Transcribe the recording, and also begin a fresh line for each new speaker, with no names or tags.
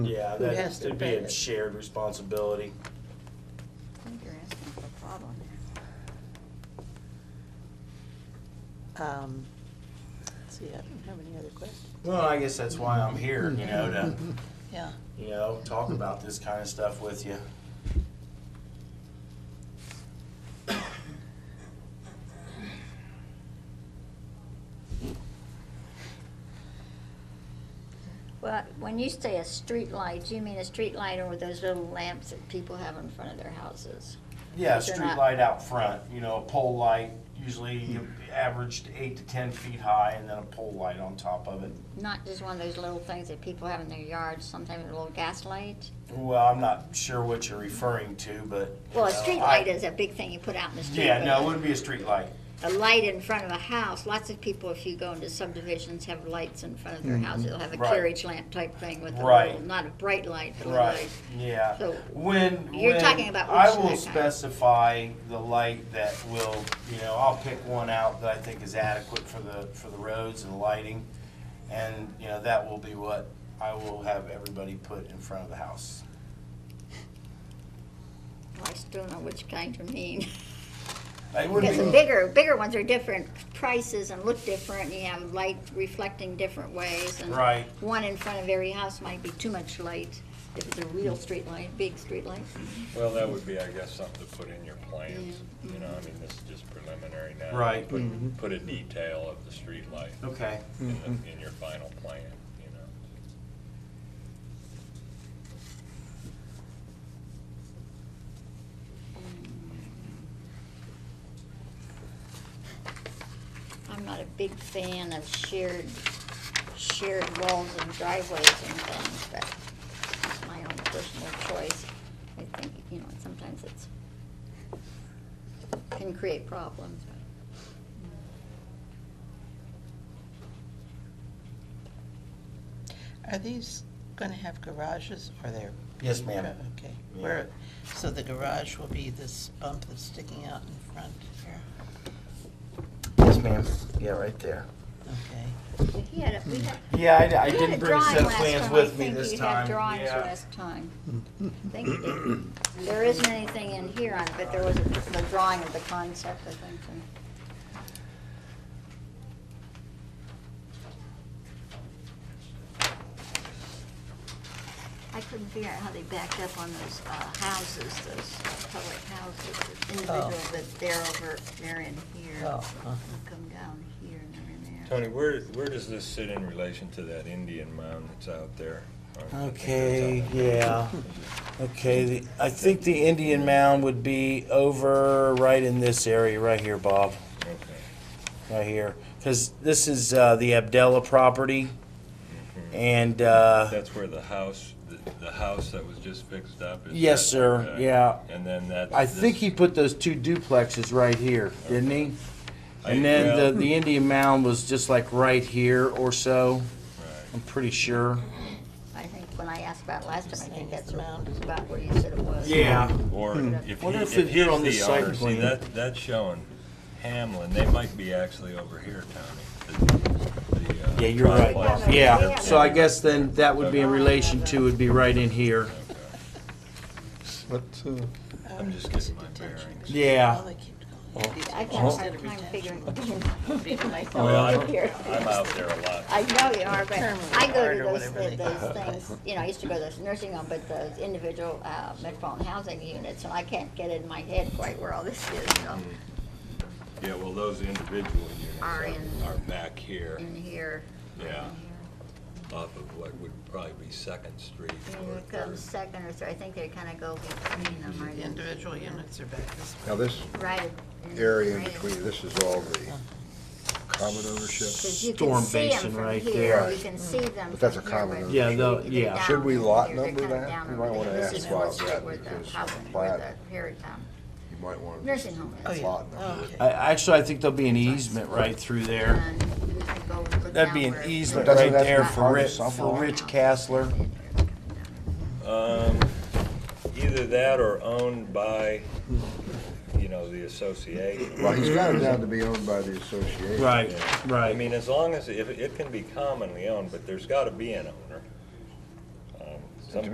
Yeah,
Who has
that,
to
it'd be
pay
a
it?
shared responsibility.
I think you're asking for a problem here.
Um, let's see, I don't have any other questions.
Well, I guess that's why I'm here, you know, to,
Yeah.
you know, talk about this kind of stuff with you.
Well, when you say a street light, you mean a street light or those little lamps that people have in front of their houses?
Yeah, a
But they're
street
not-
light out front, you know, a pole light, usually averaged eight to ten feet high, and then a pole light on top of it.
Not just one of those little things that people have in their yards, sometimes a little gas light?
Well, I'm not sure what you're referring to, but. you
Well, a
know,
street
I-
light is a big thing you put out in the street.
Yeah,
but
no, it wouldn't be a street light.
A light in front of a house, lots of people, if you go into subdivisions, have lights in front of their house. They'll have a
Right.
carriage lamp type thing with a
Right.
little, not a bright light, but a little
Right,
light.
yeah.
So,
When,
you're
when
talking about
I
which
will
light type?
specify the light that will, you know, I'll pick one out that I think is adequate for the, for the roads and lighting. And, you know, that will be what I will have everybody put in front of the house.
I still don't know which kind you mean.
It
Because the
wouldn't be,
bigger, bigger ones are different prices and look different, and you have light reflecting different ways. and
Right.
One in front of every house might be too much light, if it's a real street light, big street light.
Well, that would be, I guess, something to put in your plans, you know, I mean, this is just preliminary now.
Right.
Put, put a detail of the streetlight
okay,
in
Mm-hmm.
the, in your final plan, you know.
I'm not a big fan of shared, shared walls and driveways and things, but it's my own personal choice. I think, you know, sometimes it's, can create problems, but.
Are these gonna have garages or they're?
yes, ma'am.
Okay, where, so the garage will be this bump that's sticking out in front here,
Yes, ma'am, yeah, right there.
okay.
But He had a, we had,
Yeah, I, I
you had a
didn't bring a set
drawing
of plans
last time. I
with me
think
this
you had
time.
drawings
Yeah.
last time. I think you did. There isn't anything in here on it, but there was a, the drawing of the concept, I think. and- I couldn't figure out how they backed up on those, uh, houses, those public houses, the individual, but they're over, they're in here.
Oh, uh-huh.
Come down here and they're in there.
Tony, where, where does this sit in relation to that Indian mound that's out there? I think that's out
Okay,
there.
yeah. Okay, the, I think the Indian mound would be over right in this area, right here, Bob,
Okay,
right here. Because this is uh, the Abdella property, and uh,
that's where the house, the, the house that was just fixed up is?
Yes,
that-
sir.
okay.
Yeah.
And then that's.
I think
this-
he put those two duplexes right here, didn't he? And then
well,
the, the Indian mound was just like right here or so,
right.
I'm pretty sure.
I think when I asked about it last time, I
Saying
think
it's
that's
the mound.
about where you said it was.
Or if he,
Wonder if
if
it did
he's
on this
the
site
owner, see,
plan.
that, that's showing Hamlin, they might be actually over here, Tony. the- the, uh,
Yeah, you're right,
triplex.
Bob. Yeah, so I guess then that would be in
Okay.
relation to, would be right in here.
Okay.
But, uh,
I'm just getting my bearings.
Yeah.
Oh, they keep going.
I got a hard time figuring, figuring
Well,
myself out
I'm,
here.
I'm out there a lot.
I know you are, but
Terminal
I go
guard
to
or
those,
whatever they
those things, you know, I used to go to those nursing home, but those individual uh, metropolitan housing units, and I can't get it in my head quite where all this is, you know,
Yeah, well, those individual units
Are
are,
in-
are back
Mm.
here,
in here.
yeah, off of what would probably be Second Street
And
or
here comes
Third.
second or third, I think they kind of go between them right
The
in,
individual units are back this way.
now this
right in.
area in
right
between, this is all the common ownership.
Because you
Storm
can see
basin
them from
right
here,
there.
you can see them
But that's
from
a
here,
common-
but
Yeah,
they're
though-
down
yeah.
Should we
over
lot
here, they're
number
kinda
that?
down
We
over
might
there.
wanna
This
ask
is
why
Fourth
it's
Street
that,
where the
because
housing-
on the
where
plat-
the Perry Town
You might want to
Nursing home
Oh,
is.
yeah.
lot number.
Oh,
I,
okay.
actually, I think there'll be an easement right through there.
And you can go look
That'd be
down
an
where-
easement
Doesn't
right
that
there
be
for
part of
Rich, for
something?
Rich Castler.
Um, either that or owned by, you know, the association.
Well, he's got it down to be owned by the association.
Right,
I mean, as long as, if, it can be commonly owned, but there's gotta be an owner. Um,